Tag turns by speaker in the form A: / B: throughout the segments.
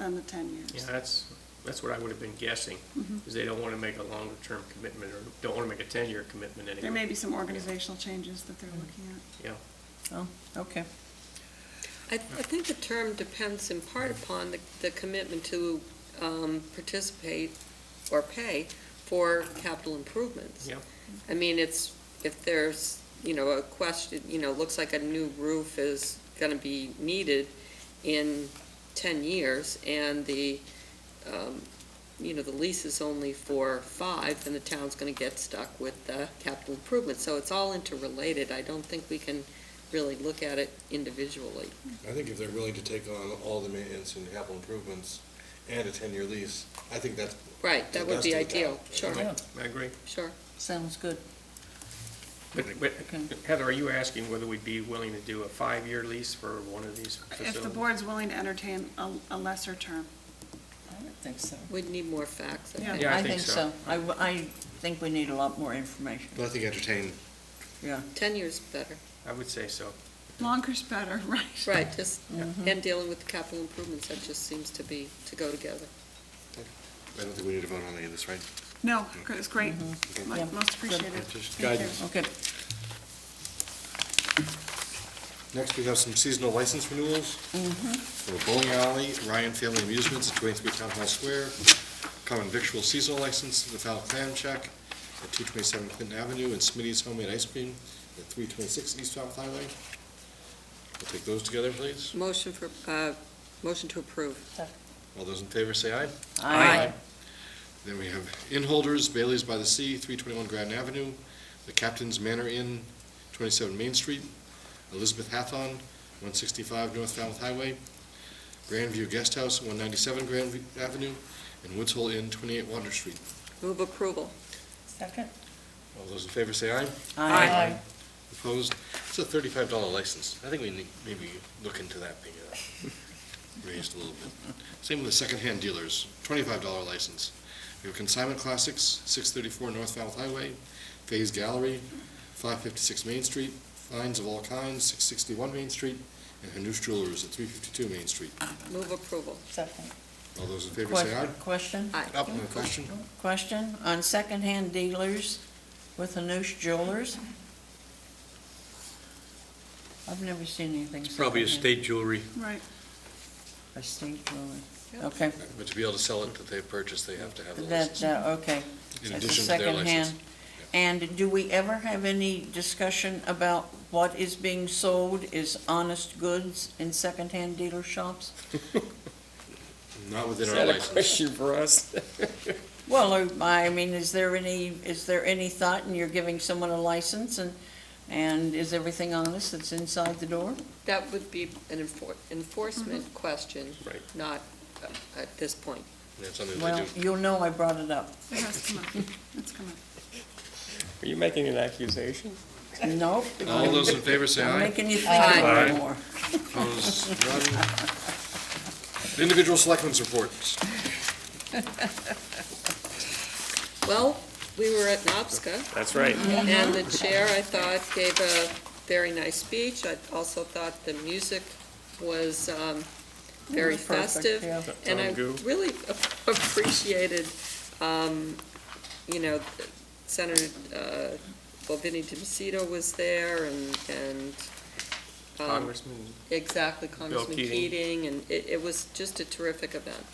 A: on the ten years.
B: Yeah, that's, that's what I would have been guessing,
A: Mm-hmm.
B: is they don't want to make a longer-term commitment, or don't want to make a ten-year commitment anyway.
A: There may be some organizational changes that they're looking at.
B: Yeah,
C: Oh, okay.
D: I, I think the term depends in part upon the, the commitment to um, participate or pay for capital improvements.
B: yeah,
D: I mean, it's, if there's, you know, a question, you know, looks like a new roof is gonna be needed in ten years, and the, um, you know, the lease is only for five, then the town's gonna get stuck with the capital improvement. So it's all interrelated. I don't think we can really look at it individually.
E: I think if they're willing to take on all the maintenance and capital improvements and a ten-year lease, I think that's,
D: Right, that would
E: That's
D: be
E: the
D: ideal.
E: town.
D: Sure,
C: Yeah,
B: I agree.
D: sure.
C: sounds good.
B: But, but
C: Okay.
B: Heather, are you asking whether we'd be willing to do a five-year lease for one of these
A: If the
B: facilities?
A: board's willing to entertain a, a lesser term.
C: I would think so.
D: We'd need more facts, I
A: Yeah.
D: think.
B: Yeah, I think so.
C: I, w- I think we need a lot more information,
E: I think entertain,
C: yeah.
D: Ten years better.
B: I would say so.
A: Longer's better, right?
D: Right, just, and dealing with the capital improvements, that just seems to be, to go together.
E: I don't think we need to vote on any of this, right?
A: No, gr- it's great.
E: Okay.
A: Mu-
C: Yeah.
A: Most appreciated.
E: Just
A: Thank you.
E: guidance.
C: Okay,
E: Next, we have some seasonal license renewals. For a bowling alley, Ryan Family Amusements, at twenty-three Town Hall Square, common victual seasonal license, the Fowl Clam Shack at two twenty-seven Clinton Avenue, and Smitty's Homemade Ice Cream at three twenty-six East Falmouth Highway. We'll take those together, please.
D: Motion for, uh, motion to approve.
E: All those in favor say aye.
C: aye,
E: Then we have inn holders, Bailey's by the Sea, three twenty-one Grand Avenue, the Captain's Manor Inn, twenty-seven Main Street, Elizabeth Hathon, one sixty-five North Falmouth Highway, Grandview Guest House, one ninety-seven Grand Avenue, and Woods Hole Inn, twenty-eight Water Street.
D: Move approval.
C: second?
E: All those in favor say aye.
C: Aye.
E: Opposed? It's a thirty-five dollar license. I think we need, maybe look into that being uh, raised a little bit. Same with the secondhand dealers, twenty-five dollar license. We have Consignment Classics, six thirty-four North Falmouth Highway, Faze Gallery, five fifty-six Main Street, Finds of All Kinds, six sixty-one Main Street, and Hanoush Jewelers at three fifty-two Main Street.
D: Move approval.
C: Second.
E: All those in favor say aye.
C: Question, question?
D: Aye. Mm-hmm.
E: Up, no question?
C: Question on secondhand dealers with Anoush Jewelers? I've never seen anything.
F: It's Probably
C: secondhand.
F: estate jewelry.
A: Right.
C: A state
D: Yep.
C: jeweler, okay.
E: But to be able to sell it that they've purchased, they have to have the
C: That,
E: license.
C: uh, okay.
E: In
C: That's a
E: addition to their
C: secondhand.
E: license.
C: And do we ever have any discussion about what is being sold is honest goods in secondhand dealer shops?
E: Not within our license.
B: for us?
C: Well, or- I mean, is there any, is there any thought in you're giving someone a license and, and is everything honest that's inside the door?
D: That would be an enfor- enforcement question,
B: Right.
D: not uh, at this point.
E: That's something they
C: Well,
E: do.
C: you'll know I brought it up.
A: It has come up. It's come up.
B: Are you making an accusation?
C: Nope.
E: All those in favor say
C: I'm
E: aye.
C: making you think
D: Aye.
C: a
B: Aye.
C: little more.
E: Opposed, none. The Individual selectmen's reports.
D: Well, we were at NOPSCA.
B: That's right.
D: And the chair, I thought, gave a very nice speech. I also thought the music was um, very
C: It was perfect,
D: festive.
C: yeah.
D: And I
B: Tom Goo.
D: really ap- appreciated, um, you know, Senator, uh, well, Vinnie DiMacedo was there and, and. um,
A: Mm-hmm.
B: Congressman,
D: Exactly, Congressman
B: Keating.
D: Keating, and it, it was just a terrific event.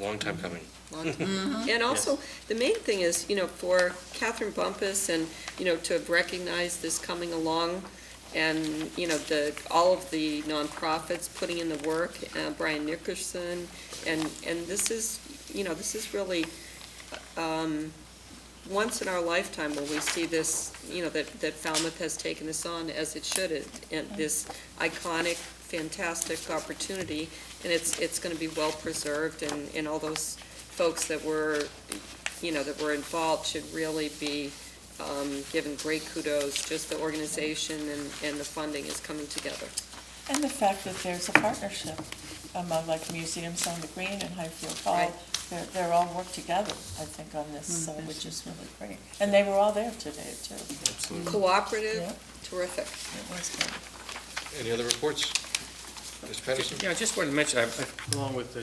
E: Long time coming.
D: Long time. And also, the main thing is, you know, for Catherine Bumpus and, you know, to have recognized this coming along and, you know, the, all of the nonprofits putting in the work, uh, Brian Nickerson, and, and this is, you know, this is really, um, once in our lifetime will we see this, you know, that, that Falmouth has taken this on as it should, it- and this iconic, fantastic opportunity, and it's, it's gonna be well-preserved, and, and all those folks that were, you know, that were involved should really be um, given great kudos, just the organization and, and the funding is coming together.
G: And the fact that there's a partnership among like museums on the green and Highfield Hall,
D: Right.
G: they're, they're all worked together, I think, on this, uh, which is really great. And they were all there today, too.
D: Cooperative,
G: Yeah.
D: terrific.
G: It was good.
E: Any other reports?
H: Mr. Patterson?
E: Yeah, I just wanted to mention, I- I- along with the